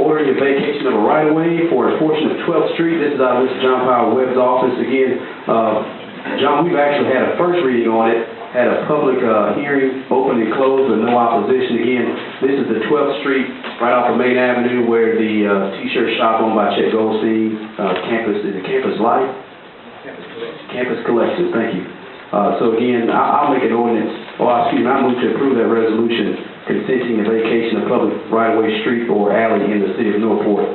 ordering a vacation of a right-of-way for a portion of 12th Street. This is out of Mr. John Powell Webb's office. Again, uh, John, we've actually had a first reading on it, had a public uh, hearing, open and closed with no opposition. Again, this is the 12th Street, right off of Main Avenue, where the uh, T-shirt shop owned by Chet Goldstein, uh, campus, is it Campus Life? Campus Collections, thank you. Uh, So again, I- I'll make an ordinance, or excuse me, I move to approve that resolution consenting the vacation of public right-of-way street or alley in the city of Northport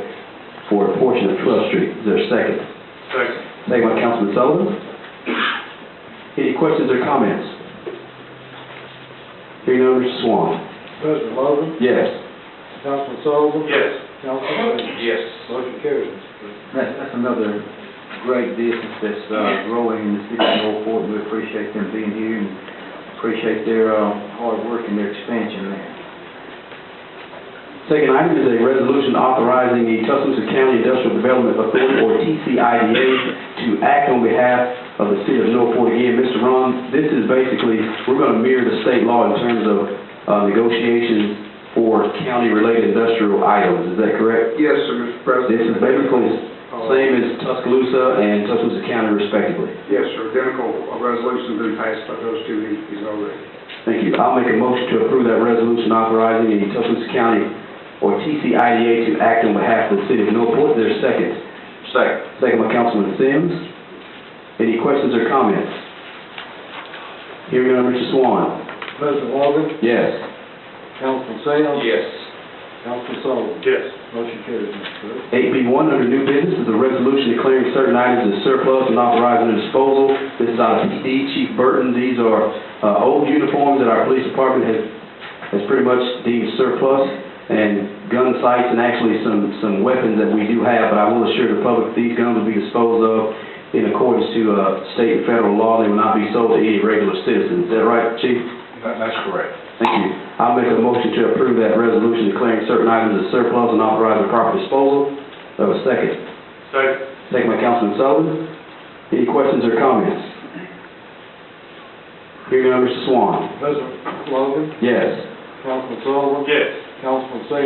for a portion of 12th Street. Is there a second? Second. Second by Councilman Sullivan. Any questions or comments? Hearing none, Mr. Swan. President Logan, Yes. Councilman Sullivan, Yes. Councilman Finn. Yes. Motion carries. That's, that's another great business that's, uh, growing in the city of Gulfport, we appreciate them being here and appreciate their, uh, hard work and their expansion there. Second item is a resolution authorizing the Tuscaloosa County Industrial Development Authority, or TCIDA, to act on behalf of the city of Northport. Again, Mr. Ron, this is basically, we're going to mirror the state law in terms of uh, negotiations for county-related industrial items. Is that correct? Yes, sir, Mr. This is President. basically the same as Tuscaloosa and Tuscaloosa County respectively. Yes, sir, identical resolution's been passed by those two entities already. Thank you. I'll make a motion to approve that resolution authorizing the Tuscaloosa County or TCIDA to act on behalf of the city of Northport. Is there a second? Second. Second by Councilman Sims. Any questions or comments? Hearing none, Mr. Swan. President Logan, Yes. Councilman Sam. Yes. Councilman Sullivan. Yes. Motion carries, Mr. President. Eight B one under new business is a resolution declaring certain items as surplus and authorizing their disposal. This is out of PD, Chief Burton. These are uh, old uniforms that our police department has, has pretty much deemed surplus and gun sights and actually some, some weapons that we do have, but I will assure the public these guns will be disposed of in accordance to uh, state and federal law. They will not be sold to any regular citizen. Is that right, Chief? That's correct. Thank you. I'll make a motion to approve that resolution declaring certain items as surplus and authorizing proper disposal. Do I have a second? Second. Second by Councilman Sullivan. Any questions or comments? Hearing none, Mr. Swan. President Logan, Yes. Councilman Sullivan, Yes. Councilman Sam.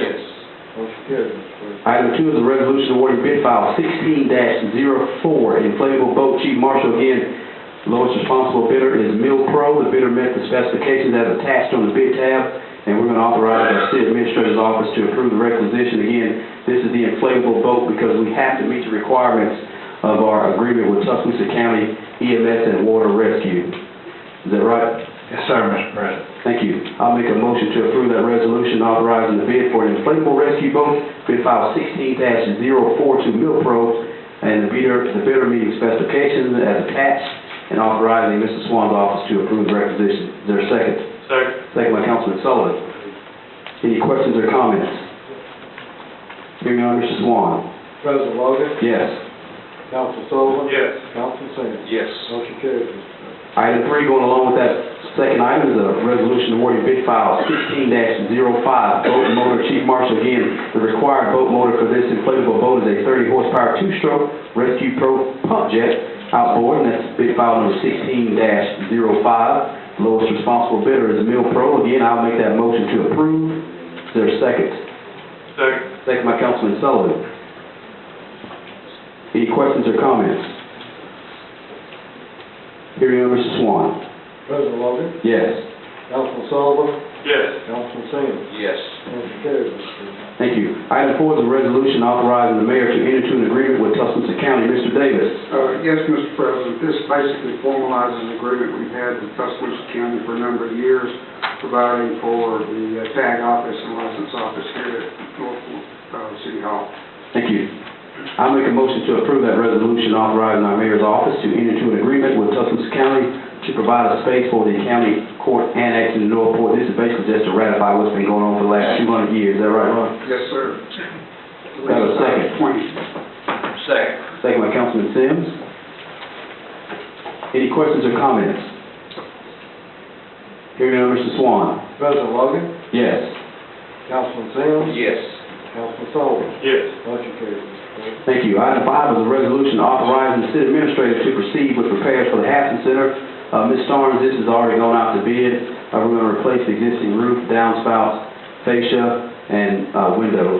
Motion carries, Mr. President. Item two is a resolution awarding bid file sixteen 4 inflatable boat chief marshal. Again, lowest responsible bidder is Mill Pro. The bidder met the specifications as attached on the bid tab, and we're going to authorize our city administrator's office to approve the requisition. Again, this is the inflatable boat because we have to meet the requirements of our agreement with Tuscaloosa County EMS and Water Rescue. Is that right? Yes, sir, Mr. President. Thank you. I'll make a motion to approve that resolution authorizing the bid for an inflatable rescue boat, bid file sixteen 42 Milpro, and the bidder, the bidder meeting specifications as attached, and authorizing Mr. Swan's office to approve the requisition. Is there a second? Second. Second by Councilman Sullivan. Any questions or comments? Hearing none, Mr. Swan. President Logan, Yes. Councilman Sullivan. Yes. Councilman Sam. Yes. Motion carries, Mr. President. Item three, going along with that second item, is a resolution awarding bid file sixteen 5 boat motor. Chief Marshal, again, the required boat motor for this inflatable boat is a thirty horsepower two-stroke rescue pro pump jet outboard, and that's bid file number sixteen 5 Lowest responsible bidder is Mill Pro. Again, I'll make that motion to approve. Is there a second? Second. Second by Councilman Sullivan. Any questions or comments? Hearing none, Mr. Swan. President Logan, Yes. Councilman Sullivan, Yes. Councilman Sam. Yes. Motion carries, Mr. President. Thank you. Item four is a resolution authorizing the mayor to enter into an agreement with Tuscaloosa County. Mr. Davis. Uh, yes, Mr. President, this basically formalizes an agreement we've had with Tuscaloosa County for a number of years, providing for the uh, tag office and license office here at Norfolk, uh, City Hall. Thank you. I make a motion to approve that resolution authorizing our mayor's office to enter into an agreement with Tuscaloosa County to provide a space for the county court annex in Northport. This is basically just to ratify what's been going on for the last two hundred years. Is that right, Ron? Yes, sir. Have a second. Twenty. Second. Second by Councilman Sims. Any questions or comments? Hearing none, Mr. Swan. President Logan, Yes. Councilman Sam. Yes. Councilman Sullivan. Yes. Motion carries, Mr. President. Thank you. Item five is a resolution authorizing the city administrator to proceed with repairs for the Hassan Center. Uh, Ms. Starnes, this has already gone out to bid. Uh, we're gonna replace the existing roof, downspouts, fascia, and, uh, windows.